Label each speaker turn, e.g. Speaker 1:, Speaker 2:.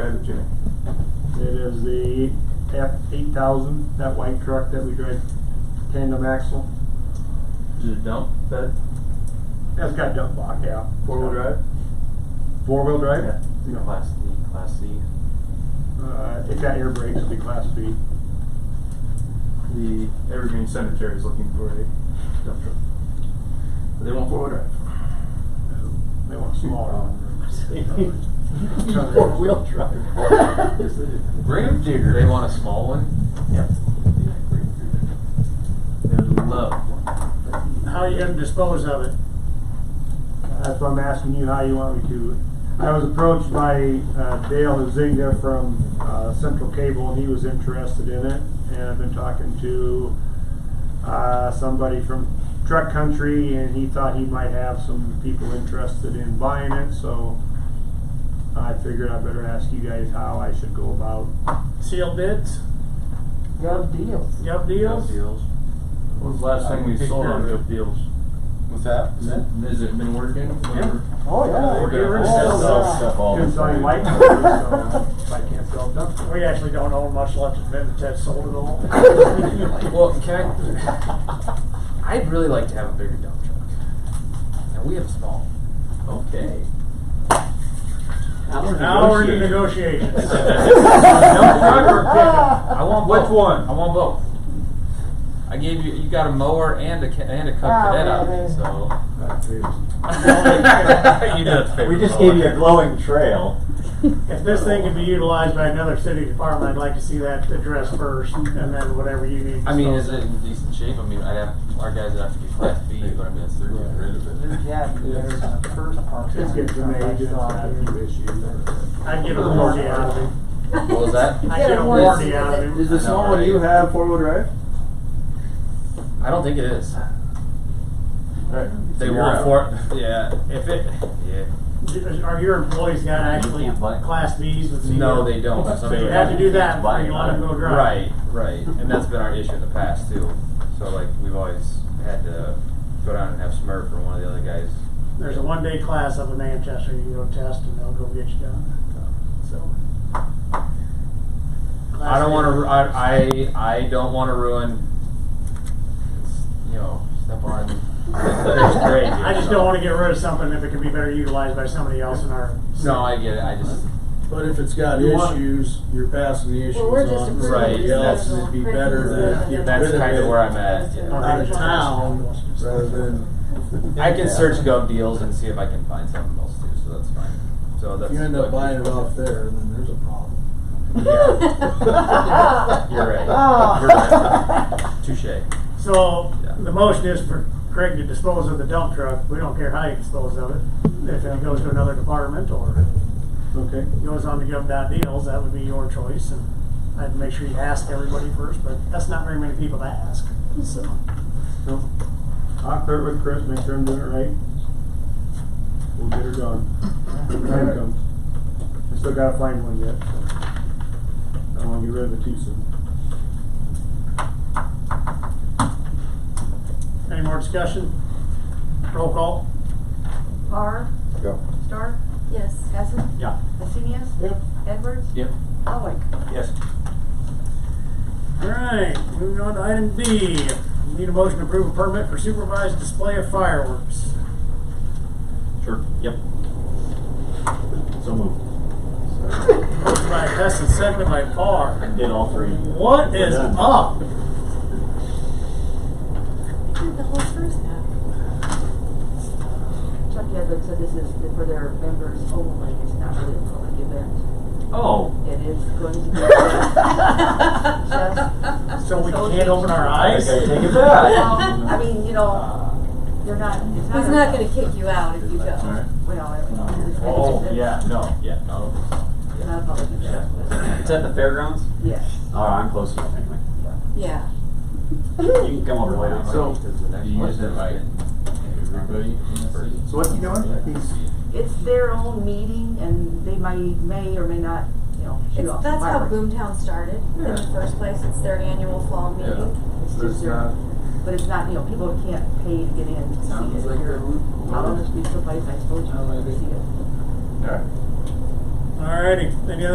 Speaker 1: Okay. It is the F eight thousand, that white truck that we drive tandem axle.
Speaker 2: Is it dump bed?
Speaker 1: That's got dump block, yeah.
Speaker 2: Four-wheel drive?
Speaker 1: Four wheel drive?
Speaker 2: Yeah.
Speaker 1: No.
Speaker 2: Class D, Class C.
Speaker 1: Uh, it's got air brakes, it'll be class B.
Speaker 2: The Evergreen Cemetery is looking for a dump truck. But they want four-wheel drive.
Speaker 1: They want a smaller one.
Speaker 3: Four-wheel drive.
Speaker 2: Yes, they do.
Speaker 4: Grave digger. They want a small one.
Speaker 2: Yep. They would love one.
Speaker 5: How are you gonna dispose of it?
Speaker 1: That's why I'm asking you how you want me to. I was approached by uh, Dale Huzinga from uh, Central Cable, and he was interested in it. And I've been talking to uh, somebody from Truck Country, and he thought he might have some people interested in buying it. So I figured I better ask you guys how I should go about.
Speaker 5: Sealed bids?
Speaker 3: Good deal.
Speaker 5: Gov
Speaker 2: Dump
Speaker 5: deals?
Speaker 2: deals. What was the last thing we
Speaker 4: Take
Speaker 2: sold
Speaker 4: care
Speaker 2: on
Speaker 4: of it.
Speaker 2: dump deals?
Speaker 4: What's that?
Speaker 2: Is it, has it been working? Whatever.
Speaker 3: Oh, yeah.
Speaker 4: We're
Speaker 5: Get rid
Speaker 4: gonna
Speaker 5: of
Speaker 4: sell,
Speaker 5: stuff.
Speaker 4: sell stuff all the
Speaker 1: Couldn't sell any
Speaker 4: time.
Speaker 1: light company,
Speaker 5: uh,
Speaker 1: so if I can't sell dump trucks.
Speaker 5: We actually don't own much left of them, Ted's sold it all.
Speaker 4: Well, can I? I'd really like to have a bigger dump truck. And we have a small.
Speaker 2: Okay.
Speaker 5: Now we're in negotiations.
Speaker 4: Dump truck or pickup? I want both.
Speaker 2: Which one?
Speaker 4: I want both. I gave you. You got a mower and a ca- and a cup
Speaker 3: Ah,
Speaker 4: for that out of
Speaker 3: man.
Speaker 4: me, so.
Speaker 1: That's it.
Speaker 4: you know it's
Speaker 6: We just
Speaker 4: favorable.
Speaker 6: gave you a glowing trail.
Speaker 5: If this thing can be utilized by another city department, I'd like to see that addressed first, and then whatever you need.
Speaker 4: I mean, is it
Speaker 5: disposed of.
Speaker 4: in decent shape? I mean, I'd have our guys would have to be class B, but I mean, that's they're getting rid of it.
Speaker 3: Yeah, there's a first part.
Speaker 1: Just get some age, it's got a few issues.
Speaker 5: I'd get a warranty out of him.
Speaker 4: What was that?
Speaker 5: I'd get a warranty out of him.
Speaker 4: the small one you
Speaker 6: have four-wheel drive?
Speaker 4: I don't think it is.
Speaker 6: Right.
Speaker 4: They
Speaker 6: You're
Speaker 4: want
Speaker 6: out.
Speaker 4: four. Yeah, if it. Yeah.
Speaker 5: Are your employees got actually
Speaker 2: You can't buy it.
Speaker 5: class Bs with CDL?
Speaker 4: No, they don't. For some
Speaker 5: So you
Speaker 4: reason.
Speaker 5: have to do that before
Speaker 2: Buy
Speaker 5: you
Speaker 2: it.
Speaker 5: let them go drive.
Speaker 4: Right, right, and that's been our issue in the past too. So like we've always had to go down and have Smurf or one of the other guys.
Speaker 5: There's a one-day class up in Manchester, you can go test and they'll go get you done, so.
Speaker 4: I don't want to. I, I I don't want to ruin. You know, step on. There's grade here,
Speaker 5: I just
Speaker 4: so-
Speaker 5: don't wanna get rid of something if it can be better utilized by somebody else in our.
Speaker 4: No, I get it. I just.
Speaker 7: But if it's got
Speaker 5: You want-
Speaker 7: issues, you're passing the issues
Speaker 8: Well, we're just
Speaker 7: on to
Speaker 8: approving
Speaker 4: Right,
Speaker 7: somebody else,
Speaker 8: this
Speaker 7: and it'd be
Speaker 8: proposal.
Speaker 7: better to
Speaker 8: Yeah.
Speaker 7: get
Speaker 4: That's
Speaker 7: rid of
Speaker 4: kinda
Speaker 7: it
Speaker 4: where I'm at, yeah.
Speaker 7: Out of town, rather than,
Speaker 4: I can search Gov Deals and see if I can find something else too. So that's fine. So that's.
Speaker 7: if you end up buying it off there, then there's a problem.
Speaker 4: You're right. You're
Speaker 3: Ah.
Speaker 4: right. Touche.
Speaker 5: So,
Speaker 4: Yeah.
Speaker 5: the motion is for Craig to dispose of the dump truck, we don't care how you dispose of it. If it goes to another department or
Speaker 1: Okay.
Speaker 5: goes on to give that deals, that would be your choice, and I'd make sure you ask everybody first, but that's not very many people to ask, so.
Speaker 1: So, I'll clear it with Chris, make sure I'm doing it right. We'll get her done. Time comes. I still gotta find one yet, so. I don't wanna get rid of it too soon.
Speaker 5: Any more discussion? Roll call?
Speaker 8: Barr,
Speaker 6: Go.
Speaker 8: Stark,
Speaker 9: Yes.
Speaker 8: Hessen,
Speaker 4: Yeah.
Speaker 8: Messinius,
Speaker 1: Yep.
Speaker 8: Edwards,
Speaker 4: Yep.
Speaker 8: Elwick.
Speaker 4: Yes.
Speaker 5: Alright, moving on to item B. Need a motion to approve a permit for supervised display of fireworks.
Speaker 4: Sure. Yep.
Speaker 6: So moved.
Speaker 5: Motion by Hess and seconded by Barr.
Speaker 6: Did all three.
Speaker 5: What is
Speaker 6: We're done.
Speaker 5: up?
Speaker 9: I did the whole first half.
Speaker 8: Chuck Edwards said this is for their members only, it's not really a public event.
Speaker 6: Oh.
Speaker 8: It is going to be. Just-
Speaker 5: So we can't open our
Speaker 6: I
Speaker 5: eyes?
Speaker 6: gotta take it
Speaker 8: Well,
Speaker 6: back.
Speaker 8: I mean, you know, they're not, it's not.
Speaker 9: He's
Speaker 8: a-
Speaker 9: not gonna kick you out if you
Speaker 6: Alright.
Speaker 9: don't.
Speaker 8: Well, it's.
Speaker 6: Oh, yeah, no, yeah, no.
Speaker 8: It's not a public event.
Speaker 6: It's at the fairgrounds?
Speaker 8: Yes,
Speaker 6: Oh, I'm close enough anyway.
Speaker 9: Yeah.
Speaker 6: You can come over later.
Speaker 4: So,
Speaker 2: Do you just invite everybody?
Speaker 6: So what's he doing? He's-
Speaker 8: it's their own meeting and they might, may or may not, you know, shoot
Speaker 9: It's,
Speaker 8: off
Speaker 9: that's how
Speaker 8: fireworks.
Speaker 9: Boomtown started in the first place. It's their annual fall meeting.
Speaker 8: It's
Speaker 2: There's
Speaker 8: just their,
Speaker 2: not-
Speaker 8: but it's not, you know, people can't pay to get in to see it.
Speaker 4: Sounds like
Speaker 8: You're Out on the street someplace, I suppose you can see it.
Speaker 6: All right.
Speaker 5: Alrighty, any other